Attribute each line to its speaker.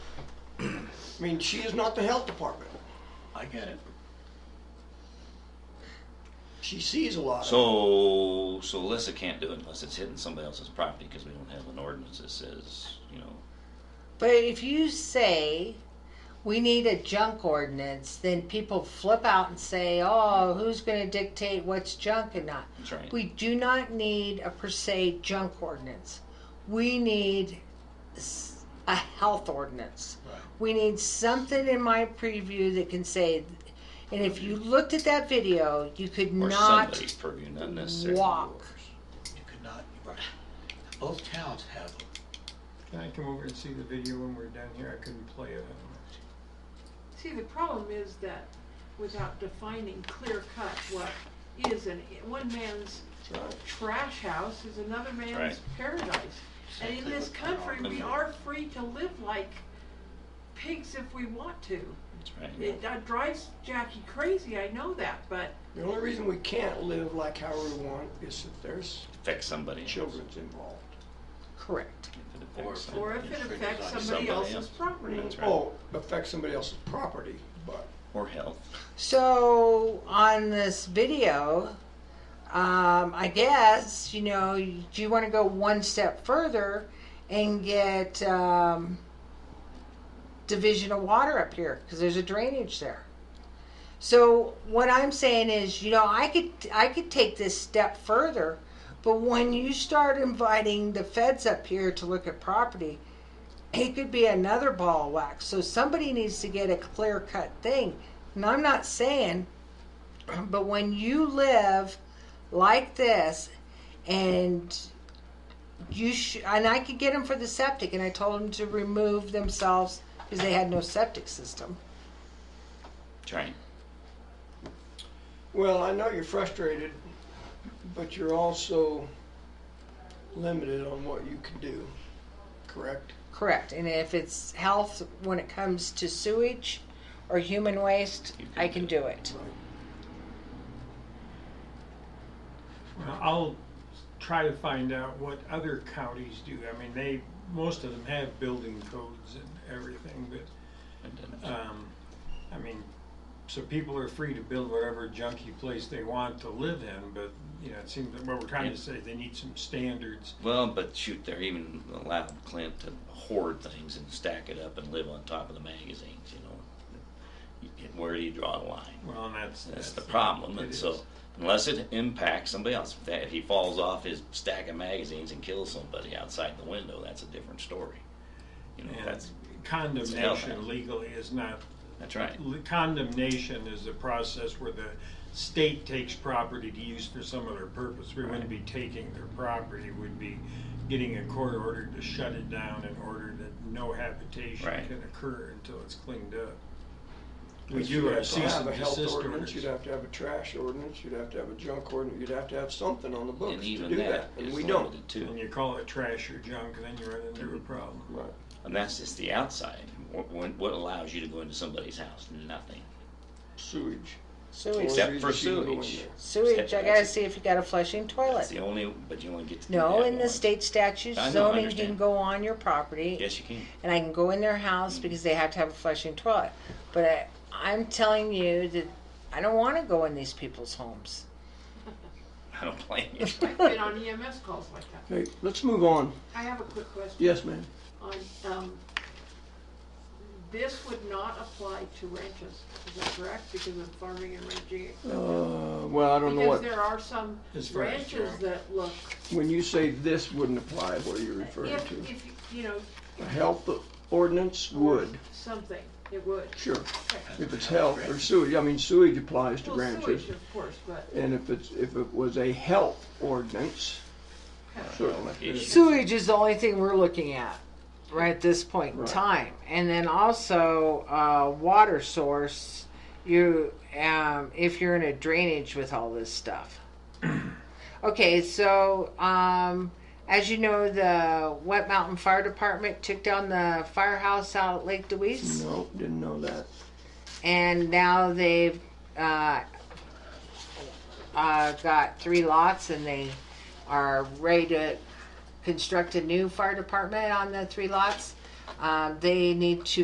Speaker 1: I mean, she is not the health department.
Speaker 2: I get it.
Speaker 1: She sees a lot of
Speaker 2: So, so Alyssa can't do it unless it's hitting somebody else's property because we don't have an ordinance that says, you know,
Speaker 3: But if you say we need a junk ordinance, then people flip out and say, oh, who's going to dictate what's junk and not?
Speaker 2: that's right.
Speaker 3: We do not need a per se junk ordinance. We need s- a health ordinance.
Speaker 2: Right.
Speaker 3: We need something in my preview that can say, and if you looked at that video, you could
Speaker 2: or
Speaker 3: not.
Speaker 2: somebody's purview, not necessarily
Speaker 3: walk.
Speaker 2: yours.
Speaker 4: You could not, right. Both towns have them.
Speaker 5: Can I come over and see the video when we're done here? I couldn't play it.
Speaker 6: See, the problem is that without defining clear cut what is an, one man's trash house is another
Speaker 2: Right.
Speaker 6: man's paradise. And in this country, we are free to live like pigs if we want to.
Speaker 2: That's right.
Speaker 6: It that drives Jackie crazy, I know that, but
Speaker 1: The only reason we can't live like how we want is if there's
Speaker 2: Affects somebody. else.
Speaker 1: children's involved.
Speaker 3: Correct.
Speaker 2: If it affects
Speaker 4: Or-
Speaker 2: somebody
Speaker 6: or if it
Speaker 2: else.
Speaker 6: affects
Speaker 2: Somebody
Speaker 6: somebody else's
Speaker 2: else.
Speaker 6: property.
Speaker 2: That's right.
Speaker 1: Oh, affects somebody else's property, but
Speaker 2: Or health.
Speaker 3: So on this video, um, I guess you know, do you want to go one step further and get um, division of water up here because there's a drainage there. So what I'm saying is, you know, I could I could take this step further, but when you start inviting the feds up here to look at property, it could be another ball of wax. So somebody needs to get a clear cut thing. And I'm not saying, but when you live like this, and you sh- and I could get them for the septic, and I told them to remove themselves because they had no septic system.
Speaker 2: That's right.
Speaker 1: Well, I know you're frustrated, but you're also limited on what you can do, correct?
Speaker 3: Correct. And if it's health, when it comes to sewage or human waste,
Speaker 2: You can
Speaker 3: I can
Speaker 2: do
Speaker 3: do it.
Speaker 5: Well, I'll try to find out what other counties do. I mean, they, most of them have building codes and everything, but,
Speaker 2: It doesn't-
Speaker 5: um, I mean, so people are free to build whatever junky place they want to live in, but, you know, it seems that what we're trying to say, they need some standards.
Speaker 2: Well, but shoot, they're even allowed Clint to hoard things and stack it up and live on top of the magazines, you know. You get- Where do you draw the line?
Speaker 5: Well, and that's.
Speaker 2: That's the problem,
Speaker 5: it
Speaker 2: and
Speaker 5: is.
Speaker 2: so unless it impacts somebody else, if that- if he falls off his stack of magazines and kills somebody outside the window, that's a different story. You know,
Speaker 5: And
Speaker 2: that's,
Speaker 5: condemnation legally is not
Speaker 2: that's right.
Speaker 5: L- Condemnation is a process where the state takes property to use for some other purpose. We wouldn't be taking their property, we'd be getting a court order to shut it down in order that no habitation
Speaker 2: Right.
Speaker 5: can occur until it's cleaned up. We
Speaker 1: But
Speaker 5: do
Speaker 1: you'd
Speaker 5: have
Speaker 1: have to
Speaker 5: uh, cease
Speaker 1: have
Speaker 5: and
Speaker 1: a health
Speaker 5: desist
Speaker 1: ordinance, You'd
Speaker 5: orders.
Speaker 1: have to have a trash ordinance, you'd have to have a junk ordinance, you'd have to have something on the
Speaker 2: And
Speaker 1: books to
Speaker 2: even
Speaker 1: do that,
Speaker 2: that
Speaker 1: and
Speaker 2: is
Speaker 1: we don't.
Speaker 2: limited
Speaker 5: When
Speaker 2: too.
Speaker 5: you call it trash or junk, then you run into a problem.
Speaker 1: Right.
Speaker 2: And that's just the outside. What, what what allows you to go into somebody's house? Nothing.
Speaker 1: Sewage.
Speaker 3: Sewage.
Speaker 2: Except
Speaker 1: Only
Speaker 2: for
Speaker 1: reason you can go in
Speaker 2: sewage.
Speaker 1: there.
Speaker 3: Sewage. I gotta see if you got a flushing
Speaker 2: That's
Speaker 3: toilet.
Speaker 2: the only, but you only get to do
Speaker 3: No,
Speaker 2: that
Speaker 3: in the
Speaker 2: once.
Speaker 3: state statutes,
Speaker 2: I know, I
Speaker 3: zoning can
Speaker 2: understand.
Speaker 3: go on your property.
Speaker 2: Yes, you can.
Speaker 3: and I can go in their house because they have to have a flushing toilet. But I, I'm telling you that I don't want to go in these people's homes.
Speaker 2: I don't blame you.
Speaker 6: I've been on EMS calls like that.
Speaker 1: Okay, let's move on.
Speaker 6: I have a quick question.
Speaker 1: Yes, ma'am.
Speaker 6: on, um, this would not apply to ranches, is that correct? Because of farming and ranching.
Speaker 1: Uh, well, I don't know
Speaker 6: Because
Speaker 1: what,
Speaker 6: there are some
Speaker 5: As far as
Speaker 6: ranches
Speaker 5: junk.
Speaker 6: that look,
Speaker 1: when you say this wouldn't apply, what are you referring
Speaker 6: if,
Speaker 1: to?
Speaker 6: if, you know,
Speaker 1: A health ordinance would,
Speaker 6: something, it would.
Speaker 1: sure. If it's health or sewage, I mean sewage applies to
Speaker 6: Well,
Speaker 1: ranches.
Speaker 6: sewage, of course, but,
Speaker 1: And if it's, if it was a health ordinance, certainly.
Speaker 3: Sewage is the only thing we're looking at right at this point in
Speaker 1: Right.
Speaker 3: time. And then also uh, water source. You, um, if you're in a drainage with all this stuff. okay, so um, as you know, the Wet Mountain Fire Department took down the firehouse out at Lake Deweese.
Speaker 1: No, didn't know that.
Speaker 3: and now they've uh, uh, got three lots and they are ready to construct a new fire department on the three lots. Uh, they need to